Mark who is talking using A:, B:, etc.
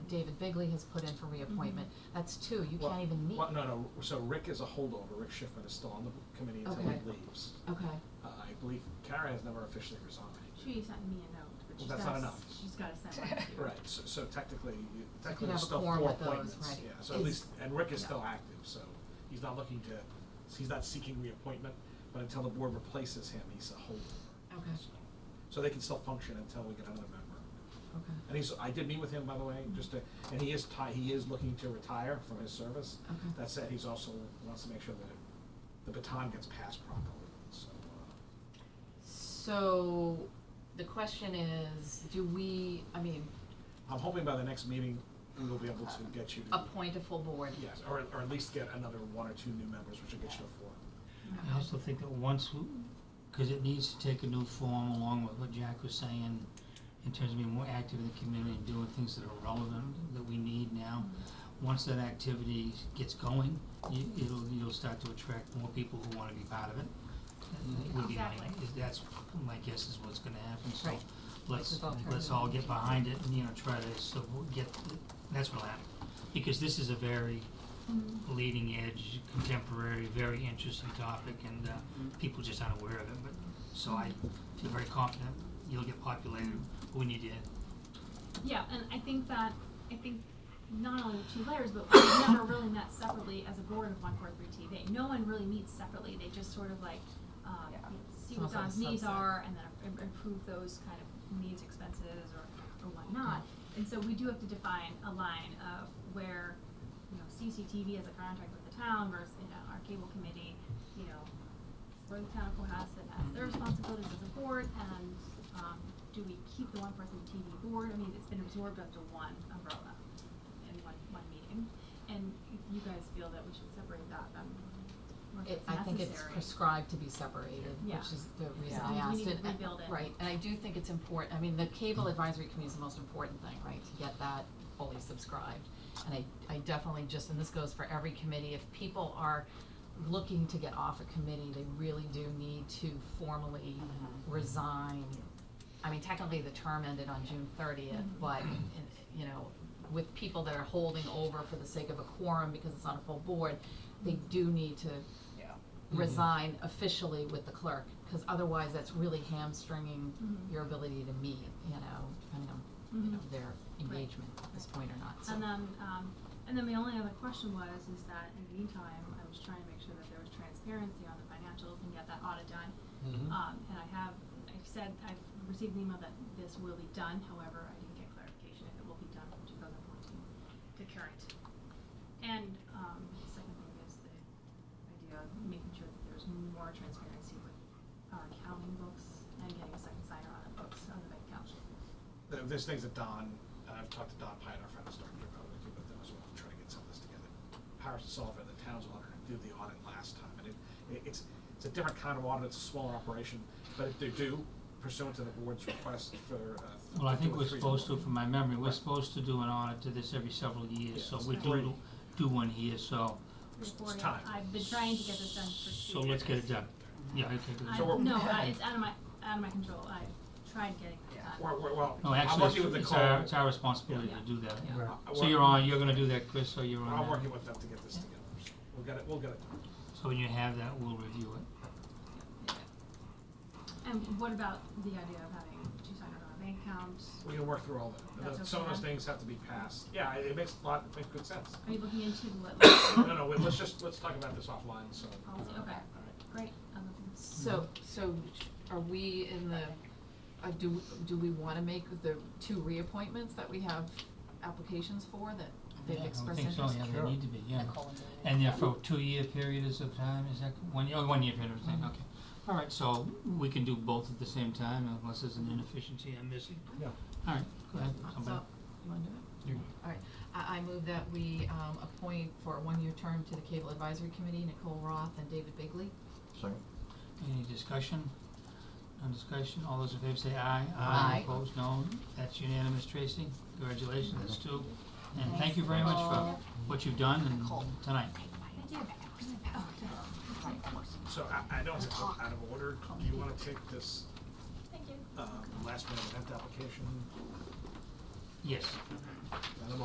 A: David Bigley has put in for reappointment. That's two, you
B: Well,
A: can't even meet.
B: Well, no, no, so Rick is a holdover, Rick Schiffman is still on the committee until
A: Okay.
B: he leaves.
A: Okay,
B: Uh, I believe Karen has never officially resigned.
C: She sent me a note, but
B: Well,
C: she's
B: that's
C: gotta,
B: not
C: s-
B: enough.
C: she's gotta send one to you.
B: Right, so, so technically, you- technically
A: have
B: there's
A: a
B: still
A: quorum
B: four
A: with those,
B: appointments,
A: right.
B: yeah, so at
A: Is-
B: least, and Rick is
A: yeah.
B: still active, so he's not looking to, he's not seeking reappointment, but until the board replaces him, he's a holdover.
A: Okay.
B: So- So they can still function until we get another member.
A: okay,
B: And he's, I did meet with him, by the way, just to, and he is ti- he is looking to retire from his service.
A: Okay.
B: That said, he's also wants to make sure that the baton gets passed properly, so, uh,
A: so the question is, do we, I mean,
B: I'm hoping by the next meeting, we will be able to get you to.
A: appoint a full board?
B: Yes, or, or at least get another one or two new members, which will get you to four.
D: I also think that once, because it needs to take a new form along with what Jack was saying, in terms of being more active in the community and doing things that are relevant, that we need now. Once that activity gets going, you, it'll, you'll start to attract more people who wanna be part of it. And it would be my-
C: Exactly.
D: is- That's, my guess is what's gonna happen, so
A: Right.
D: let's,
A: Like with
D: let's all get behind it and, you know, try to, so we'll get, that's what'll happen. Because this is a very
C: Um,
D: leading edge, contemporary, very interesting topic, and uh, people just aren't aware of it. But so I feel very confident you'll get populated. We need to.
C: Yeah, and I think that, I think not only the two layers, but we've never really met separately as a board of one four three TV. No one really meets separately, they just sort of like, um,
E: Yeah.
C: see
A: It's almost like
C: what
A: a
C: Don's needs
A: subset.
C: are and then im- improve those kind of needs, expenses or, or whatnot.
A: Mm-hmm.
C: And so we do have to define a line of where, you know, CCTV has a contract with the town versus, you know, our cable committee, you know, where the town of Cohasset has their responsibilities as a board, and, um, do we keep the one person TV board, I mean, it's been absorbed under one umbrella in one, one meeting, and if you guys feel that we should separate that, then, unless
A: It,
C: it's
A: I
C: necessary.
A: think it's prescribed to be separated, which
C: Yeah.
A: is the reason
C: Yeah.
A: I
C: We
A: asked
C: need
A: it.
C: to
A: and-
C: rebuild it.
A: Right, and I do think it's important, I mean, the cable advisory committee is the most important thing, right, to get that fully subscribed. And I, I definitely just, and this goes for every committee, if people are looking to get off a committee, they really do need to formally resign. I mean, technically, the term ended on June thirtieth,
C: Mm-hmm.
A: but, in- you know, with people that are holding over for the sake of a quorum because it's on a full board, they do need to
E: Yeah.
A: Mm-hmm. resign officially with the clerk, because otherwise that's really hamstringing
C: Mhm.
A: your ability to meet, you know, depending on, you know,
C: Mhm.
A: their engagement at this point or not, so.
C: And then, um, and then the only other question was, is that in the meantime, I was trying to make sure that there was transparency on the financials and get that audit done.
A: Mm-hmm.
C: Um, and I have, I've said, I've received an email that this will be done, however, I didn't get clarification if it will be done from two thousand fourteen to current. And, um, the second thing is the idea of making sure that there's more transparency with our accounting books and getting a second signer on the books, on the bank account.
B: There- There's things that Don, and I've talked to Don Pine, our friend, who's talking about it, but that was, we'll try to get some of this together. Powers and Sullivan, the town's auditor, did the audit last time, and it, it- it's, it's a different kind of audit, it's a smaller operation, but if they do pursuant to the board's request for, uh.
D: Well, I think
B: do a
D: we're
B: three-
D: supposed to, from my memory, we're
B: Right.
D: supposed to do an audit to this every several years.
B: Yeah,
D: so we
C: it's
D: do
B: great.
D: do- do one here. So
B: It's-
C: Before
B: it's
C: you-
B: time.
C: I've been trying to get this done for two
D: so let's get
C: years.
D: it done. Yeah. Okay. Good.
C: I,
B: So we're-
C: no, I, it's out of my, out of my control, I tried getting
E: Yeah.
C: that done.
B: We're, we're, well,
D: no,
B: I'm
D: actually,
B: working with
D: it's,
B: the
D: it's our
B: call,
D: it's our responsibility
C: Yeah.
D: to do that.
A: Yeah.
B: Right.
D: So you're on. You're going to do that, Chris. So you're on.
B: I'm
D: that.
B: working with them to get this together, so we'll get it, we'll get it done.
D: So when you have that, we'll review it.
C: And what about the idea of having two signers on a bank account?
B: We can work through all that.
C: That's
B: Some of
C: okay
B: those
C: then?
B: things have to be passed. Yeah, it it makes a lot, it makes good sense.
C: Are you looking into what,
B: No, no, wait, let's just, let's talk about this offline, so. uh,
C: policy, Oh, okay, great, I'm looking
A: Mm-hmm.
C: at this.
A: So, so are we in the, uh, do, do we wanna make the two reappointments that we have applications for that
D: Yeah,
A: they've
D: I would
A: expressed
D: think
A: interest?
D: so. Yeah, they
B: Sure.
D: need to be. Yeah. And yeah, for two year period is of time, is that, one year, oh, one year period of time, okay. All right, so we can do both at the same time unless there's an inefficiency I'm missing.
B: Yeah.
D: All right, go ahead, somebody.
A: Uh, So, you wanna do it? All right, I, I move that we, um, appoint for a one-year term to the Cable Advisory Committee, Nicole Roth and David Bigley.
F: Second.
D: Any discussion? No discussion, all those in favor say aye.
A: Aye.
D: Opposed, no, that's unanimous, Tracy, congratulations, that's two. And thank you very much for what you've done and tonight.
C: Thank you. Oh, okay.
B: So I, I know it's out out of order. Do you wanna take this, uh,
C: Thank you.
D: Uh,
B: um, last minute event application?
D: Yes.
B: I don't know